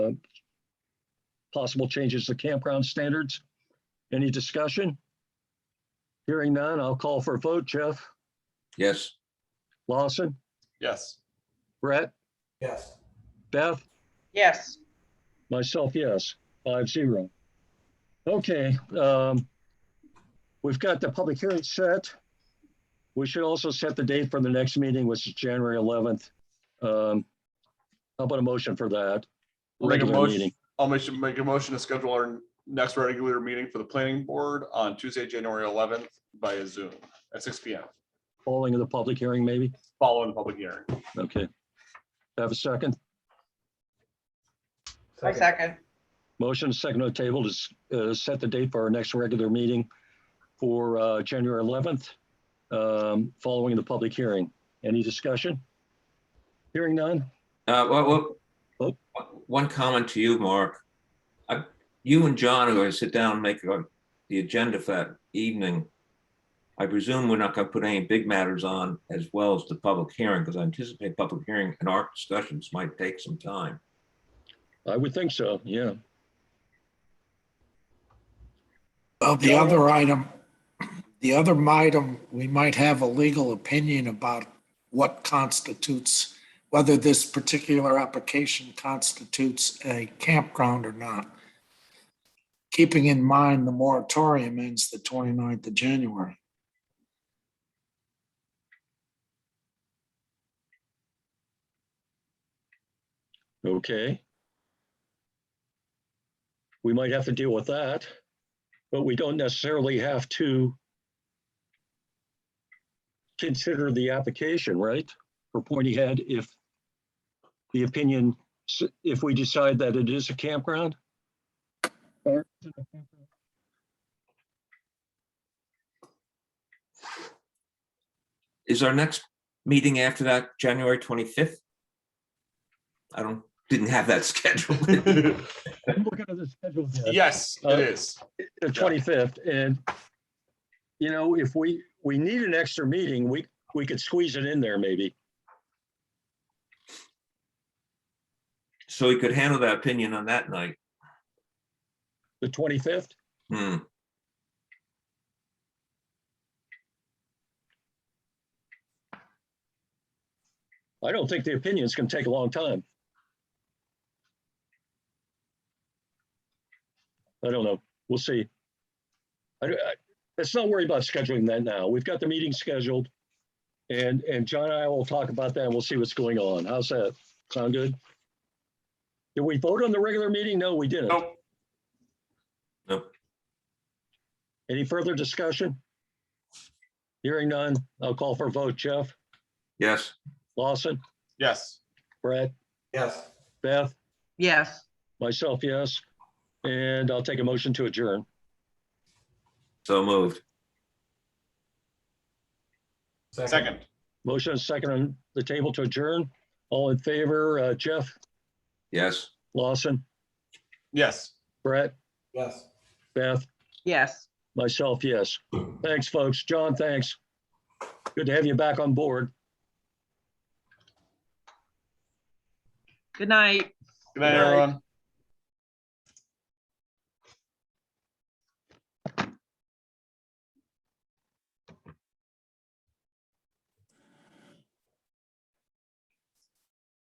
possible changes to campground standards. Any discussion? Hearing none, I'll call for a vote. Jeff, Yes, Lawson, Yes. Brett, Yes. Beth, yes, myself, yes, five zero. Okay, um, we've got the public hearing set. We should also set the date for the next meeting, which is January eleventh. Um, how about a motion for that? I'll make a Regular motion, meeting. I'll make, make a motion to schedule our next regular meeting for the planning board on Tuesday, January eleventh via Zoom at six P M, Following the public hearing, maybe? following the public hearing. Okay. Have a second? I second, Motion second on the table to s- uh, set the date for our next regular meeting for uh, January 11th, um, following the public hearing. Any discussion? Hearing none? uh, well, well, Oh. one comment to you, Mark. I- You and John are gonna sit down and make uh, the agenda for that evening. I presume we're not gonna put any big matters on as well as the public hearing, because I anticipate public hearing and our discussions might take some time. I would think so, yeah. Well, the other item, the other item, we might have a legal opinion about what constitutes, whether this particular application constitutes a campground or not. Keeping in mind the moratorium ends the 29th of January. Okay. We might have to deal with that, but we don't necessarily have to consider the application, right? For Pointy Head, if the opinion, s- if we decide that it is a campground? Or- Is our next meeting after that, January twenty-fifth? I don't, didn't have that scheduled. I'm looking at the schedule here. Yes, Uh, it is. the twenty-fifth, and you know, if we, we need an extra meeting, we, we could squeeze it in there maybe. So we could handle that opinion on that night. The twenty-fifth? Hmm. I don't think the opinion's gonna take a long time. I don't know. We'll see. I, I- let's not worry about scheduling that now. We've got the meeting scheduled. And, and John and I will talk about that and we'll see what's going on. How's that? Sound good? Did we vote on the regular meeting? No, we didn't. Nope. Nope. Any further discussion? Hearing none, I'll call for a vote. Jeff, Yes, Lawson, Yes. Brett, Yes. Beth? yes, Myself, yes. And I'll take a motion to adjourn. so moved. Second. Motion is second on the table to adjourn. All in favor, uh, Jeff, Yes. Lawson, Yes. Brett, Yes. Beth, yes. myself, yes. Thanks, folks. John, thanks. Good to have you back on board. Good night. Good Good night, night. everyone.